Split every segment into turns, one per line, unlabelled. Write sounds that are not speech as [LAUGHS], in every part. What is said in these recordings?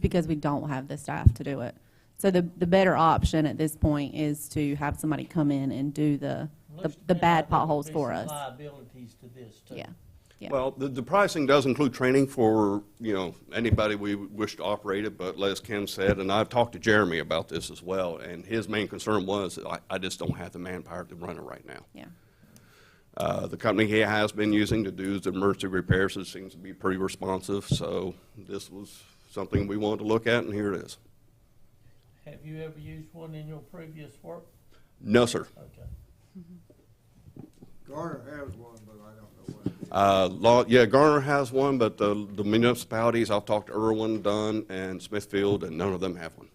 because we don't have the staff to do it. So the, the better option at this point is to have somebody come in and do the, the,
Looks to
the
me
bad
like there would
potholes
be
for
some
us.
Liabilities to this, too.
Yeah, yeah.
Well, the, the pricing does include training for, you know, anybody we wish to operate it, but as Ken said, and I've talked to Jeremy about this as well, and his main concern was, I, I just don't have the manpower to run it right now.
Yeah.
Uh, the company he has been using to do the emergency repairs, it seems to be pretty responsive, so this was something we wanted to look at, and here it is.
Have you ever used one in your previous work?
No, sir.
Okay.
Garner has one, but I don't know what it is.
Uh, law, yeah, Garner has one, but the, the municipalities, I've talked to Irwin, Dunn, and Smithfield, and none of them have one.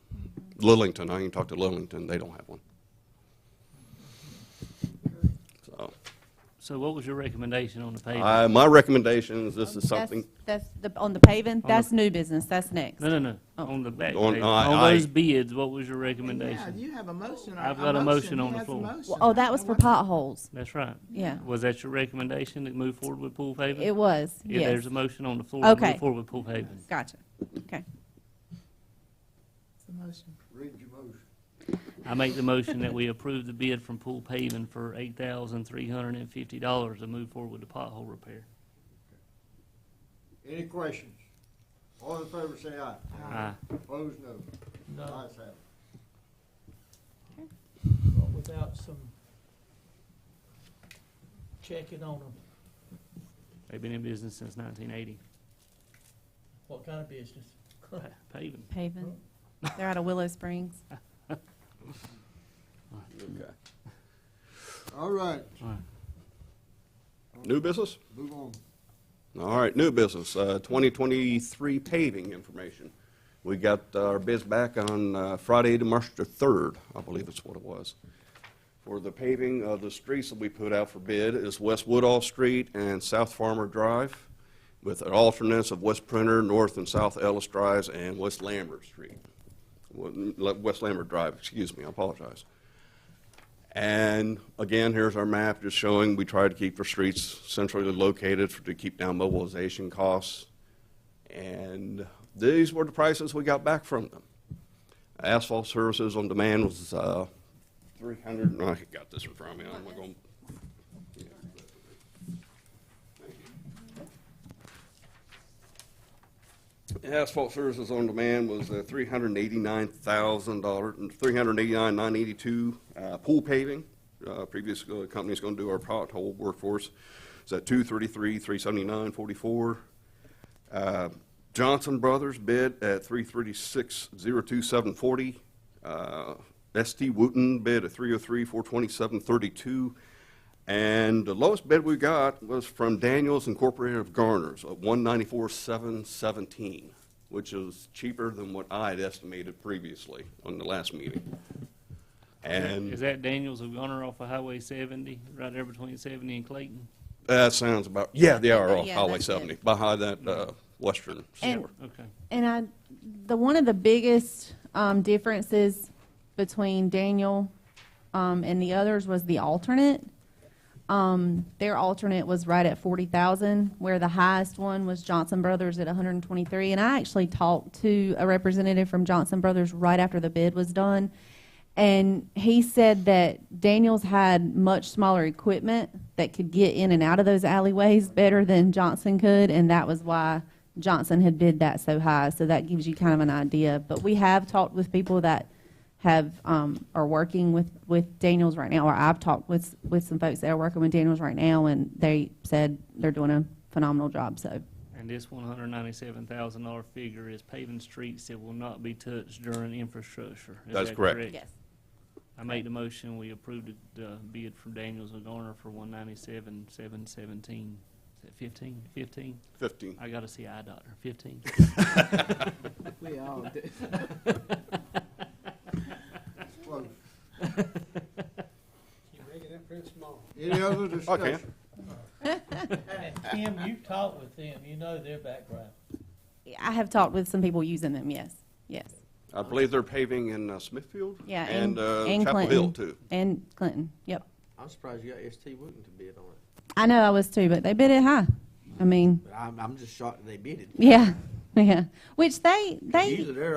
Lillington, I can talk to Lillington, they don't have one. So,
So what was your recommendation on the paving?
I, my recommendation is this is
That's-
something,
That's, the, on the paving,
the-
that's new business, that's next.
No, no, no,
Oh.
on the back
On-
page.
I-
On those
I-
bids, what was your
Yeah,
recommendation?
you have a motion. or-
I've got a motion on
He
the
has a
floor.
motion.
Well, Oh, that was for potholes,
That's right.
yeah.
Was that your recommendation to move forward with pool paving?
It was,
Yeah,
yes.
there's a motion on the floor to
Okay.
move forward with pool paving.
Gotcha, okay.
It's a motion.
Read your motion.
I make the motion that we approve the bid from pool paving for eight thousand three hundred and fifty dollars to move forward with the pothole repair.
Any questions? All in favor, say aye.
Aye.
Opposed,
No,
no. Ayes have it.
but without some checking on them,
They've been in business since nineteen eighty,
what kind of [LAUGHS] business?
paving.
Paving, they're out of Willow
[LAUGHS]
Springs.
okay.
All right,
new business?
move on.
All right, new business, uh, 2023 paving information. We got uh, our bids back on uh, Friday, March the 3rd, I believe that's what it was. For the paving of the streets that we put out for bid is West Woodall Street and South Farmer Drive with an alternance of West Printer, North and South Ellis Drives, and West Lambert Street. Wa- West Lambert Drive, excuse me, I apologize. And again, here's our map just showing we try to keep our streets centrally located for- to keep down mobilization costs. And these were the prices we got back from them. Asphalt services on demand was uh, 300, and I got this in front of me, I'm not going. Asphalt services on demand was uh, $389,000, and $389,982. Uh, Pool paving, uh, previous uh, company's going to do our pothole workforce, is at $233,379.44. Uh, Johnson Brothers bid at three thirty-six zero two seven forty. ST Wooten bid at three oh three four twenty-seven thirty-two. And the lowest bid we got was from Daniels Incorporated of Garner's at one ninety-four seven seventeen, which is cheaper than what I had estimated previously on the last meeting.
Is
And
that Daniels of Gunner off of Highway seventy, right there between seventy and Clayton?
that sounds about, yeah, they are off
Yeah,
Highway
that's it.
seventy, behind that, uh, western
And-
store.
Okay.
And I, the, one of the biggest um, differences between Daniel um, and the others was the alternate. Um, Their alternate was right at forty thousand, where the highest one was Johnson Brothers at one hundred and twenty-three. And I actually talked to a representative from Johnson Brothers right after the bid was done. And he said that Daniels had much smaller equipment that could get in and out of those alleyways better than Johnson could, and that was why Johnson had bid that so high. So that gives you kind of an idea. But we have talked with people that have um, are working with, with Daniels right now, or I've talked with with some folks that are working with Daniels right now, and they said they're doing a phenomenal job. So
And this one hundred ninety-seven thousand dollar figure is paving streets that will not be touched during infrastructure. Is
That's
that
correct.
I make the motion, we approved the uh, bid from Daniels and Garner for one ninety-seven, seven seventeen. Is that fifteen? Fifteen?
Fifteen.
I gotta see eye doctor, fifteen?
We all do.
Close.
Keep making that print small.
Any other
Okay.
discussion?
And Tim, you talk with them, you know their background.
I have talked with some people using them. Yes, yes,
I believe they're paving in uh, Smithfield?
yeah,
And uh,
and
Chapel
Clinton
Hill, too.
and Clinton. Yep.
I'm surprised you got ST Wooten to bid on it,
I know I was too, but they bid it high. I mean,
but I'm, I'm just shocked that they bid it.
yeah, [LAUGHS]
Yeah, which they, they.
Usually they're